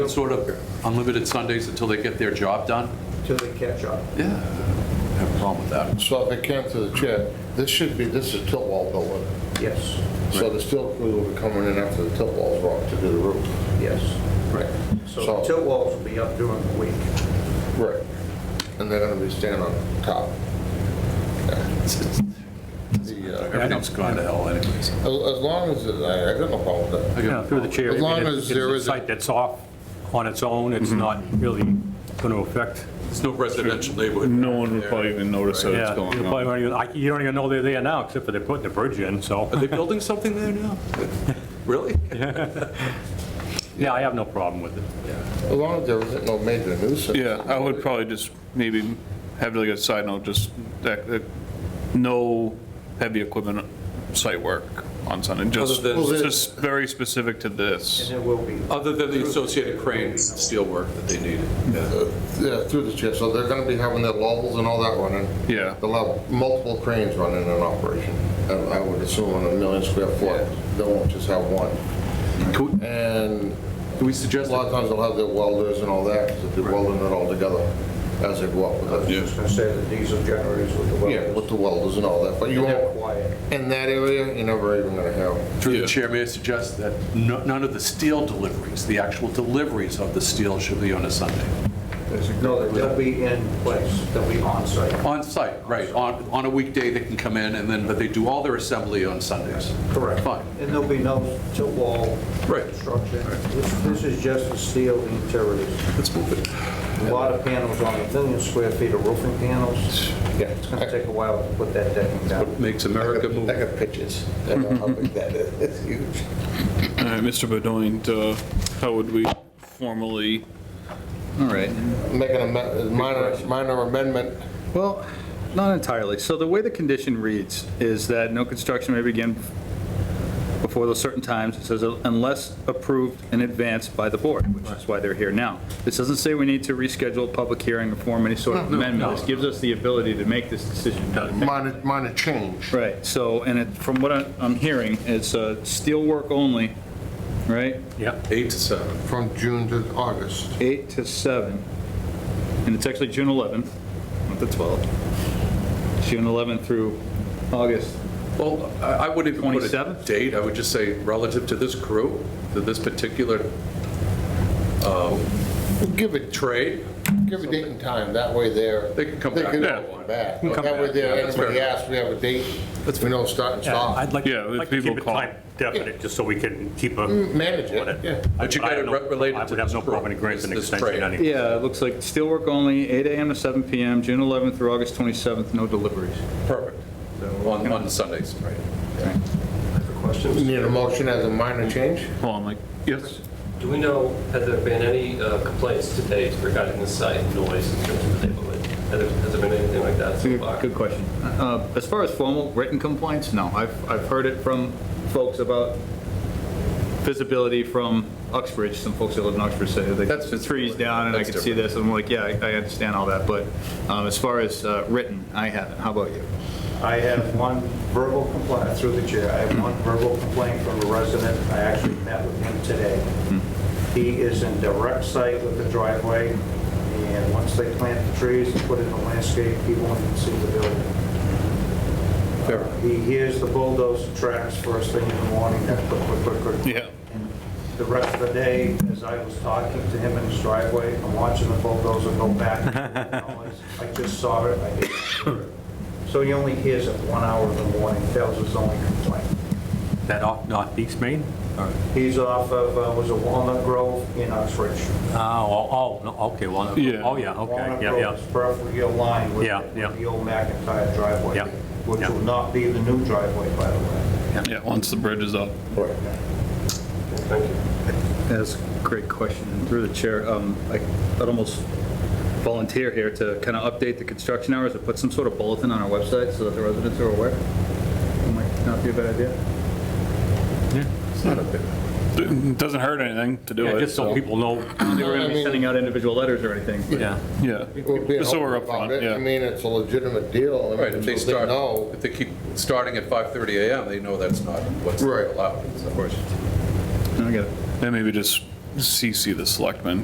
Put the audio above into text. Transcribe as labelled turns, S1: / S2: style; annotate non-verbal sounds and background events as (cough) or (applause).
S1: Sort of unlimited Sundays until they get their job done?
S2: till they catch up.
S1: Yeah, I have a problem with that.
S3: So if it came to the chair, this should be, this is tilt wall building.
S2: Yes,
S3: So the steel crew will be coming in after the tilt wall's rock to do the roof.
S2: yes. Right. So the
S3: So-
S2: tilt walls will be up during the week.
S3: Right. And they're gonna be standing on top.
S1: It's- it's-
S3: The, uh,
S1: Everything's gone to hell anyways.
S3: As as long as, it- I I got no problem with that.
S4: Yeah, Through the chair. I
S3: As
S4: mean,
S3: long
S4: it's-
S3: as there
S4: It's
S3: is
S4: a
S3: a-
S4: site that's off on its own,
S1: Mm-hmm.
S4: it's not really going to affect.
S1: It's no residential neighborhood.
S5: No one would probably even
S1: Oh,
S5: notice that it's
S4: Yeah,
S5: going
S4: you
S5: on.
S4: probably don't even- I- you don't even know they're there now, except for they're putting the bridge in,
S1: Are
S4: so.
S1: they building something there (laughs) now? Really?
S4: Yeah, I have no problem with it.
S3: As long as there isn't no major nuisance.
S5: Yeah, I would probably just maybe have like a side note, just that, that no heavy equipment site work on Sunday, just,
S1: Other
S3: than-
S5: just very specific to
S2: And
S5: this.
S2: there will be,
S1: Other than the associated crane steelwork that they needed.
S3: Uh, Yeah, through the chair, so they're gonna be having their levels and all that running.
S5: Yeah.
S3: They'll have multiple cranes running in operation. I I would assume on a million square foot, they won't just have one.
S1: Can we-
S3: And
S1: can we
S3: A
S1: suggest,
S3: lot of times they'll have their welders and all that, because they're welding it all together as they go up with
S2: I
S3: it.
S2: was gonna say the diesel generators with the
S3: Yeah,
S2: welders.
S3: with the welders and all that, but you
S2: And they're
S3: won't,
S2: quiet.
S3: in that area, you're never even gonna have.
S1: through the chair, may I suggest that no- none of the steel deliveries, the actual deliveries of the steel should be on a Sunday?
S2: No, they'll be in place, they'll be on site.
S1: On site, right, on, on a weekday they can come in and then, but they do all their assembly on Sundays. Fine.
S2: And there'll be no tilt wall
S1: Right.
S2: construction. This- This is just the steel interiors.
S1: Let's move it.
S2: A lot of panels on a million square feet of roofing panels.
S3: Yeah.
S2: It's gonna take a while to put that decking down.
S1: Makes America move.
S3: I got pictures. I know how big that is. (laughs) It's huge.
S5: All right, Mr. Bedoint, uh, how would we formally, all right,
S3: Making a ma- minor, minor amendment.
S6: Well, not entirely. So the way the condition reads is that no construction may begin before those certain times. It says unless approved in advance by the board, which is why they're here now. This doesn't say we need to reschedule a public hearing or form any sort of amendment. This gives us the ability to make this decision.
S3: Minor, minor change.
S6: Right, so, and it, from what I- I'm hearing, it's uh, steel work only, right?
S4: Yep.
S1: Eight to seven.
S3: From June to August.
S6: 8 to 7, and it's actually June 11th, not the 12th. June 11th through August
S1: Well, I I wouldn't even put a
S6: 27th?
S1: date, I would just say relative to this crew, to this particular
S3: Give it,
S1: trade,
S3: give a date and time, that way they're.
S1: They can come back.
S3: They can
S1: Yeah.
S3: come back.
S1: Come
S3: That way
S1: back.
S3: there,
S1: Yeah, that's fair
S3: anybody asks, we have a date, we know start and
S4: Yeah, I'd
S3: stop.
S4: like
S5: Yeah,
S4: to like to
S5: people
S4: keep it
S5: call.
S4: time definite, just so we can keep a.
S3: Mm, Manage it, yeah.
S1: But you
S4: I
S1: got
S4: have
S1: it
S4: no-
S1: re- related
S4: I
S1: to
S4: would have
S1: this
S4: no problem
S1: pro-
S4: in granting an
S1: this
S4: extension
S1: trade.
S4: anyway.
S6: Yeah, it looks like steelwork only, 8 AM to 7 PM, June 11th through August 27th, no deliveries.
S1: perfect, on, on Sundays, right?
S3: Need a motion as a minor change?
S5: hold on, like, yes?
S7: Do we know, have there been any uh, complaints to date regarding the site noise in terms of the neighborhood? Has there- has there been anything like that
S1: Mm,
S7: so far?
S6: Good question. Uh, As far as formal written complaints, no. I've, I've heard it from folks about visibility from Uxbridge, some folks that live in Uxbridge say they
S1: That's
S6: got the trees
S1: visibility.
S6: down and I
S1: That's
S6: can see this, I'm like, yeah, I I understand all that, but um, as far as uh, written, I haven't. How about you?
S2: I have one verbal complaint, through the chair, I have one verbal complaint from a resident. I actually met with him today. He is in direct sight with the driveway, and once they plant the trees and put in the landscape, he won't even see the building.
S1: Fair.
S2: He hears the bulldozer tracks first thing in the morning, that click, click, click, click.
S5: Yeah.
S2: And The rest of the day, as I was talking to him in his driveway, I'm watching the bulldozer go
S4: (laughs)
S2: back. I just saw it, I didn't hear it. So he only hears it one hour in the morning, that was his only complaint.
S4: That off Northeast Main?
S2: He's off of, uh, was a Walnut Grove in Oxford.
S4: Oh, oh, oh, no, okay, well,
S5: Yeah.
S4: oh, yeah, okay,
S2: Walnut
S4: yeah,
S2: Grove
S4: yeah.
S2: is perfectly aligned with
S4: Yeah, yeah.
S2: with the old McIntyre driveway,
S4: Yeah,
S2: which
S4: yeah.
S2: will not be the new driveway, by the way.
S5: Yeah, once the bridge is up.
S7: Thank you.
S6: That's a great question. And Through the chair, um, I- I'd almost volunteer here to kind of update the construction hours or put some sort of bulletin on our website so that the residents are aware. That Might not be a bad idea.
S5: It Doesn't hurt anything to do
S4: Yeah,
S5: it,
S4: just so
S5: so,
S4: people know,
S6: They were going to be sending out individual letters or anything, but
S4: yeah.
S5: yeah.
S3: We're being
S5: Just so we're
S3: open about
S5: upfront,
S3: it.
S5: yeah.
S3: I mean, it's a legitimate deal. I mean,
S1: Right, if they
S3: so
S1: start,
S3: know.
S1: if they keep starting at 5:30 AM, they know that's not what's
S3: Right.
S1: allowed. Of course.
S6: I get it.
S5: Then maybe just CC the selectmen